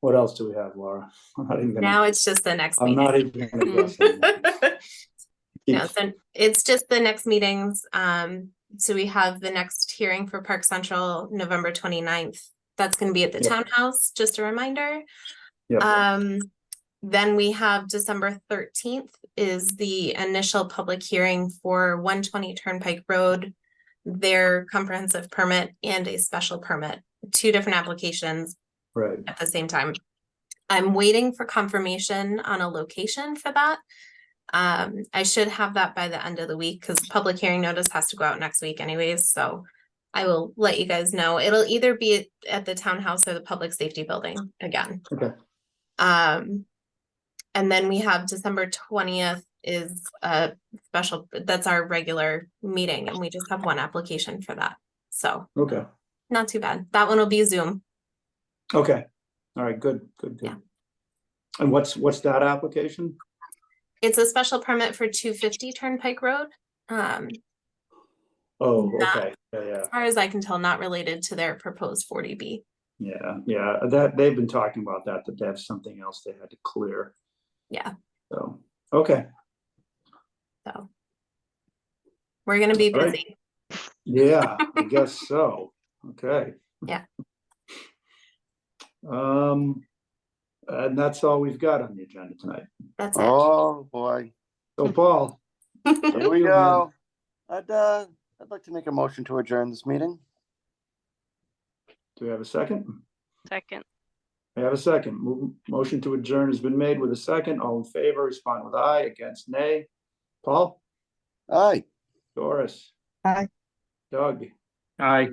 What else do we have, Laura? I'm not even gonna, Now it's just the next I'm not meeting. even gonna guess. anymore. No, so it's just the next meetings. Um, so we have the next hearing for Park Central, November 29th. That's gonna be at the Yep. townhouse, just a reminder. Yeah, Um, then we have December thirteenth is the initial public hearing for one twenty Turnpike Road. Their comprehensive permit and a special permit, two different applications right. at the same time. I'm waiting for confirmation on a location for that. Um, I should have that by the end of the week because public hearing notice has to go out next week anyways, so. I will let you guys know. It'll either be at the townhouse or the public safety building again. Okay. Um. And then we have December twentieth is a special, that's our regular meeting and we just have one application for that. So Okay, not too bad. That one will be Zoom. okay. All right, good, good, Yeah. good. And what's, what's that application? It's a special permit for two fifty Turnpike Road. Um, Oh, Not- okay, yeah, yeah. as far as I can tell, not related to their proposed forty B. Yeah, yeah, that, they've been talking about that, that they have something else they had to clear. Yeah. So, okay, We're gonna be Alright. busy. yeah, I guess so, okay. Yeah. Um, and that's all we've got on the agenda tonight. That's it. Oh, boy. So Paul, Here we Yeah. go. I'd, uh, I'd like to make a motion to adjourn this meeting. do we have a second? Second. I have a second. Mo- Motion to adjourn has been made with a second. All in favor, respond with aye, against nay. Paul, Aye. Doris. Aye. Doug, Aye.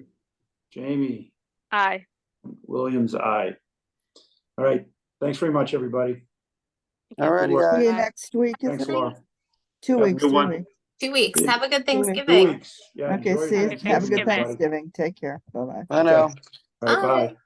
Jamie, Aye. Williams, aye. All right, thanks very much, everybody. All righty, work. See you guys. next week. It's Thanks, like Laura. Two Have a weeks, good two one. weeks. Two weeks. Have a good weeks. Two Thanksgiving. weeks. Yeah, Okay, enjoy see, you. your have a Thanksgiving, good everybody. Thanksgiving. Take care. Bye-bye. I know. All right, Bye. bye.